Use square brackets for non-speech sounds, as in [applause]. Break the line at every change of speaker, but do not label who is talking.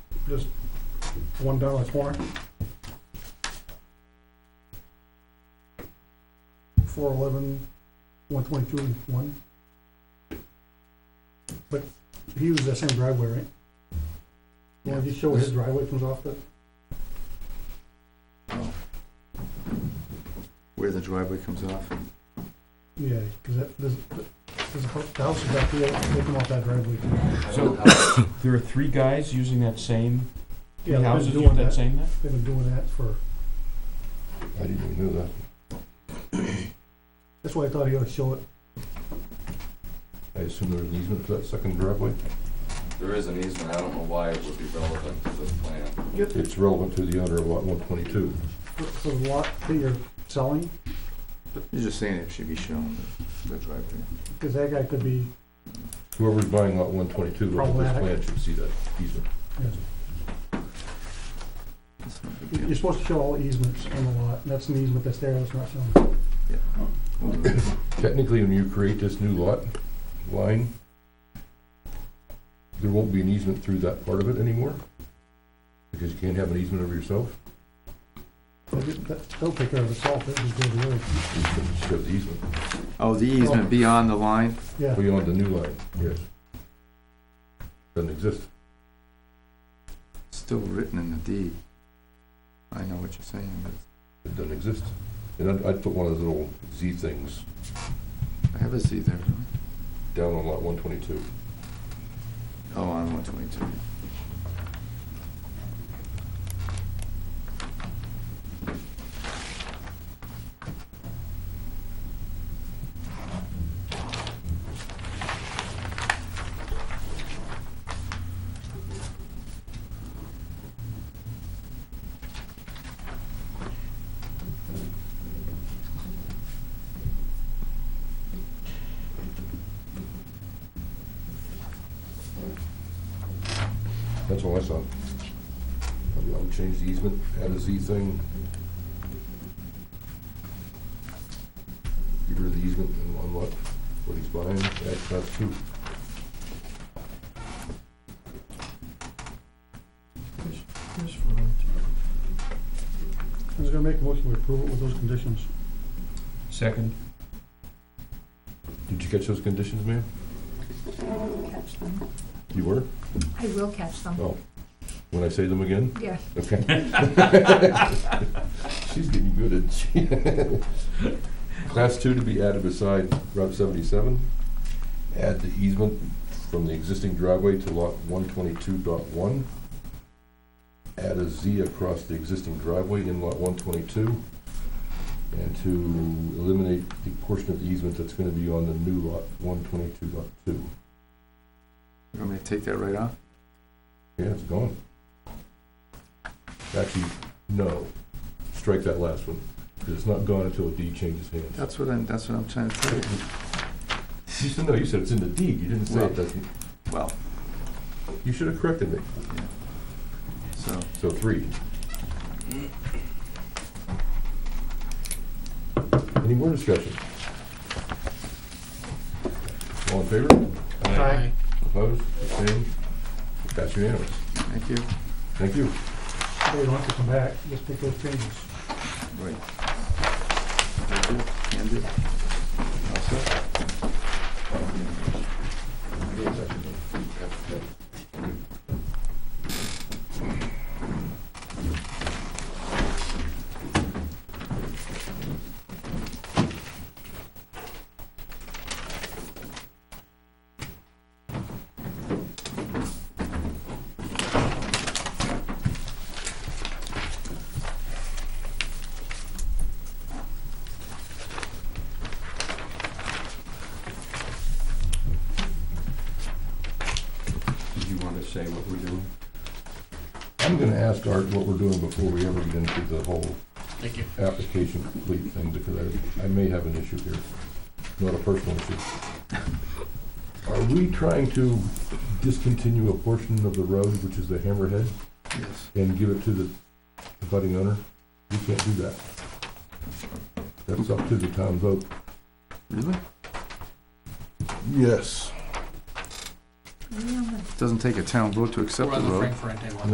just one down on the corner. Four eleven, one twenty-two, one. But he uses that same driveway, right? Yeah, just show his driveway comes off the,
Where the driveway comes off?
yeah, cause that, there's, there's a house, the house is back here, they come off that driveway. [coughs]
So uh, there are three guys using that same, three
Yeah, they've
houses
been
with
doing
that
that,
same,
they've been doing that for,
I didn't even know that.
that's why I thought he ought to show it,
I assume there's an easement for that second driveway.
There is an easement, I don't know why it would be relevant to this plan.
It's relevant to the owner of lot one twenty-two.
for, for the lot that you're selling,
You're just saying it should be shown, the driveway.
cause that guy could be,
Whoever's buying lot one twenty-two, look at this
Problematic.
plan, should see that easement.
That's not a big
you're
deal.
supposed to show all easements on the lot, and that's an easement that's there, that's not shown.
Technically, when you create this new lot line, there won't be an easement through that part of it anymore, because you can't have an easement over yourself,
They'll get- that- They'll take care of itself, it just goes away,
you can just have the easement,
Oh, the easement beyond the line?
yeah.
beyond the new line, yes. Doesn't exist.
Still written in the deed. I know what you're saying, but
It doesn't exist. And I'd, I'd put one of those little Z things
I have a Z there. don't
down on lot one twenty-two.
I? Oh, on one twenty-two.
That's all I saw. I would change the easement, add a Z thing. Get rid of the easement and on what, what he's buying, add class two.
I was gonna make a motion to approve it with those conditions.
second,
Did you catch those conditions, ma'am?
I will catch them.
You were?
I will catch them.
Oh. When I say them again?
Yeah. [laughs]
Okay. She's getting good at, she. Class two to be added beside Route seventy-seven. Add the easement from the existing driveway to lot one twenty-two dot one. Add a Z across the existing driveway in lot one twenty-two. And to eliminate the portion of the easement that's gonna be on the new lot one twenty-two dot two.
You want me to take that right off?
Yeah, it's gone. Actually, no, strike that last one, because it's not gone until a deed changes hands.
That's what I'm, that's what I'm trying to tell you.
You said, no, you said it's in the deed, you didn't say it doesn't,
Well,
you should have corrected me,
so,
so three. Any more discussion? All in favor?
Aye.
Opposed, abstained, that's unanimous,
thank you.
thank you.
They don't have to come back, just take those changes.
Right. Thank you. Can do. All set?
Do you want to say what we're doing?
I'm gonna ask Art what we're doing before we ever get into the whole
Thank you.
application complete thing, because I, I may have an issue here, not a personal issue. Are we trying to discontinue a portion of the road, which is the hammerhead,
Yes.
and give it to the budding owner? We can't do that. That's up to the town vote.
Really?
Yes.
Yeah, I'm gonna
Doesn't take a town vote to accept
We're
the
on the
road.
Frank Ferentino one.